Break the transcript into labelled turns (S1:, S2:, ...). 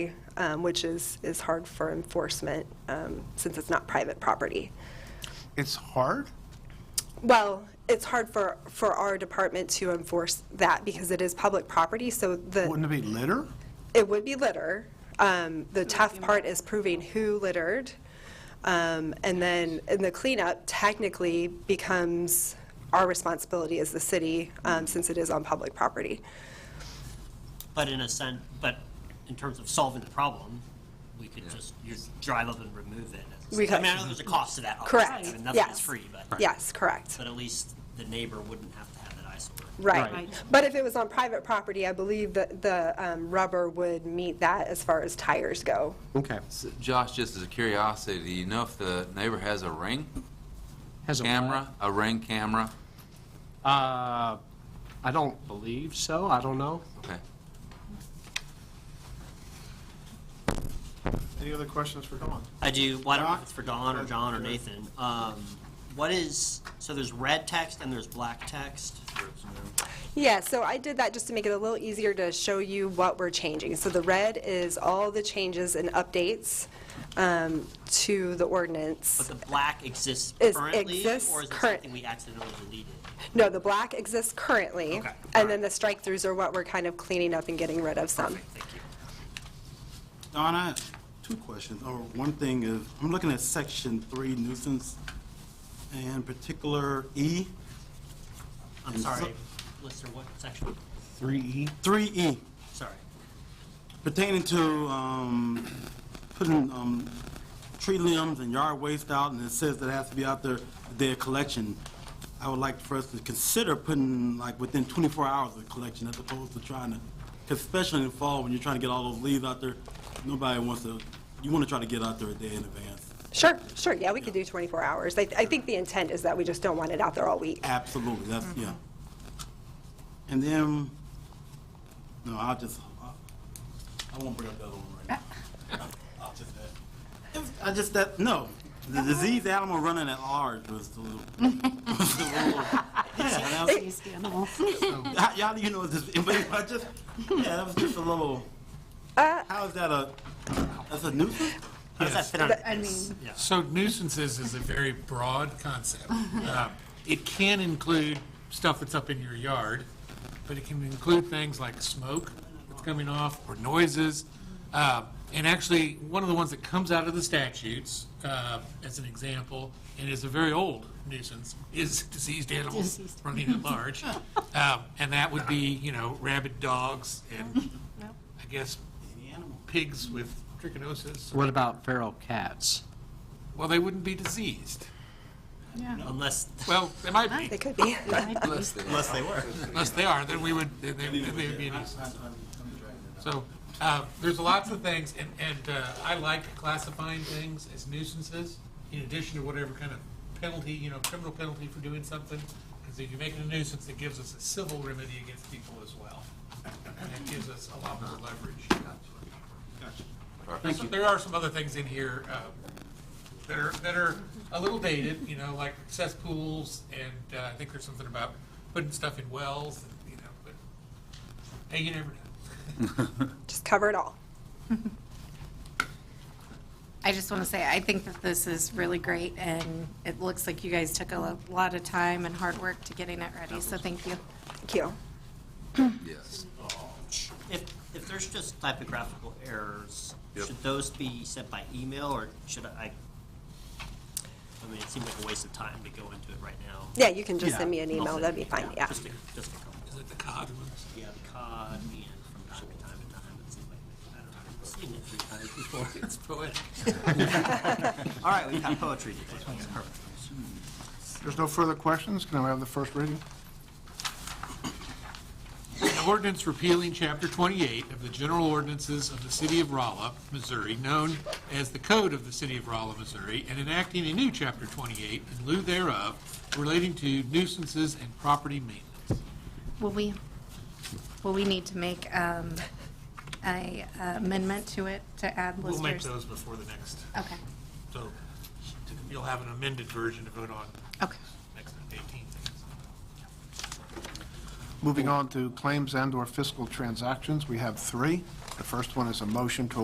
S1: um, which is, is hard for enforcement um, since it's not private property.
S2: It's hard?
S1: Well, it's hard for, for our department to enforce that because it is public property, so the,
S2: Wouldn't it be litter?
S1: it would be litter. Um, The tough part is proving who littered. Um, And then, and the cleanup technically becomes our responsibility as the city, um, since it is on public property.
S3: But in a sense, but in terms of solving the problem, we could just, you drive up and remove it.
S1: We
S3: I
S1: could.
S3: mean, I know there's a cost to that. obviously.
S1: Correct,
S3: I mean, nothing
S1: yes.
S3: is free, but.
S1: Yes, correct.
S3: But at least the neighbor wouldn't have to have that eyesore.
S1: Right.
S4: Right.
S1: But if it was on private property, I believe that the um, rubber would meet that as far as tires go.
S5: Okay.
S6: So, Josh, just as a curiosity, do you know if the neighbor has a ring
S5: Has a
S6: camera? A ring camera?
S5: Uh, I don't believe so. I don't know.
S6: Okay.
S2: Any other questions for Dawn?
S3: I do, well, I don't know
S2: Don?
S3: if it's for Don or John or Nathan. Um, What is, so there's red text and there's black text?
S1: Yeah, so I did that just to make it a little easier to show you what we're changing. So the red is all the changes and updates um, to the
S3: But
S1: ordinance.
S3: the black exists
S1: Is-
S3: currently, or is
S1: exists
S3: it
S1: current-
S3: something we accidentally deleted?
S1: No, the black exists currently.
S3: Okay.
S1: And then the strike-throughs are what we're kind of cleaning up and getting rid of some.
S3: Thank you.
S7: Donna, I have two questions, or one thing is, I'm looking at section three nuisance, and in particular E,
S3: I'm
S7: And so-
S3: sorry, Lister, what section?
S2: Three E.
S7: three E,
S3: Sorry.
S7: pertaining to, um, putting, um, tree limbs and yard waste out, and it says that it has to be out there, the day of collection. I would like for us to consider putting, like, within twenty-four hours of collection, as opposed to trying to, 'cause especially in the fall, when you're trying to get all those leaves out there, nobody wants to, you wanna try to get out there a day in advance.
S1: Sure, sure, yeah, we could do 24 hours. I I think the intent is that we just don't want it out there all week.
S7: Absolutely, that's,
S3: Mm-hmm.
S7: yeah. And then, no, I'll just, I- I won't bring up the other one right now. I'll just, uh, it was- I just, that, no, the diseased animal running at large was the little. was the little- yeah, that was-
S4: These animals.
S7: how- Y'all, you know, this, but I just, yeah, that was just a little, how is that a, that's a nuisance?
S3: How does that fit on
S4: I
S3: this?
S4: mean-
S3: Yeah.
S8: So nuisances is a very broad concept. Uh, It can include stuff that's up in your yard, but it can include things like smoke that's coming off or noises. Uh, And actually, one of the ones that comes out of the statutes, uh, as an example, and is a very old nuisance, is diseased animals
S4: Diseased.
S8: running at large. Um, And that would be, you know, rabid dogs and, I guess, pigs with trichinosis.
S5: What about feral cats?
S8: Well, they wouldn't be diseased.
S3: Unless,
S8: Well, they might be.
S1: It could be.
S6: Bless the-
S7: Unless they were.
S8: Unless they are, then we would, then they then they would be a nuisance. So uh, there's lots of things, and, and uh, I like classifying things as nuisances in addition to whatever kind of penalty, you know, criminal penalty for doing something. Because if you make it a nuisance, it gives us a civil remedy against people as well. And it gives us a lot more leverage. There's- There are some other things in here uh, that are, that are a little dated, you know, like cesspools, and uh, I think there's something about putting stuff in wells, and, you know, but, hey, you never know.
S1: Just cover it all.
S4: I just want to say, I think that this is really great, and it looks like you guys took a lo- lot of time and hard work to getting it ready, so thank you.
S1: Thank you.
S6: Yes.
S3: if, if there's just typographical errors, should those be sent by email, or should I? I mean, it seems like a waste of time to go into it right now.
S1: Yeah, you can just
S5: Yeah.
S1: send me an email, that'd be fine, yeah.
S3: Just a, just a couple.
S8: Is it the cod ones?
S3: Yeah, the cod, and from time to time to time, it seems like, I don't know, I've seen it three times before.
S8: It's poetic.
S3: All right, we have poetry today. That's perfect.
S2: There's no further questions? Can I have the first reading?
S8: An ordinance repealing Chapter 28 of the General Ordinances of the City of Rolla, Missouri, known as the Code of the City of Rolla, Missouri, and enacting a new Chapter 28 in lieu thereof relating to nuisances and property maintenance.
S4: Will we, will we need to make um, a amendment to it to add
S8: We'll make
S4: listers?
S8: those before the next,
S4: Okay,
S8: so you'll have an amended version to vote on
S4: okay.
S8: next 18.
S2: Moving on to claims and/or fiscal transactions, we have three. The first one is a motion to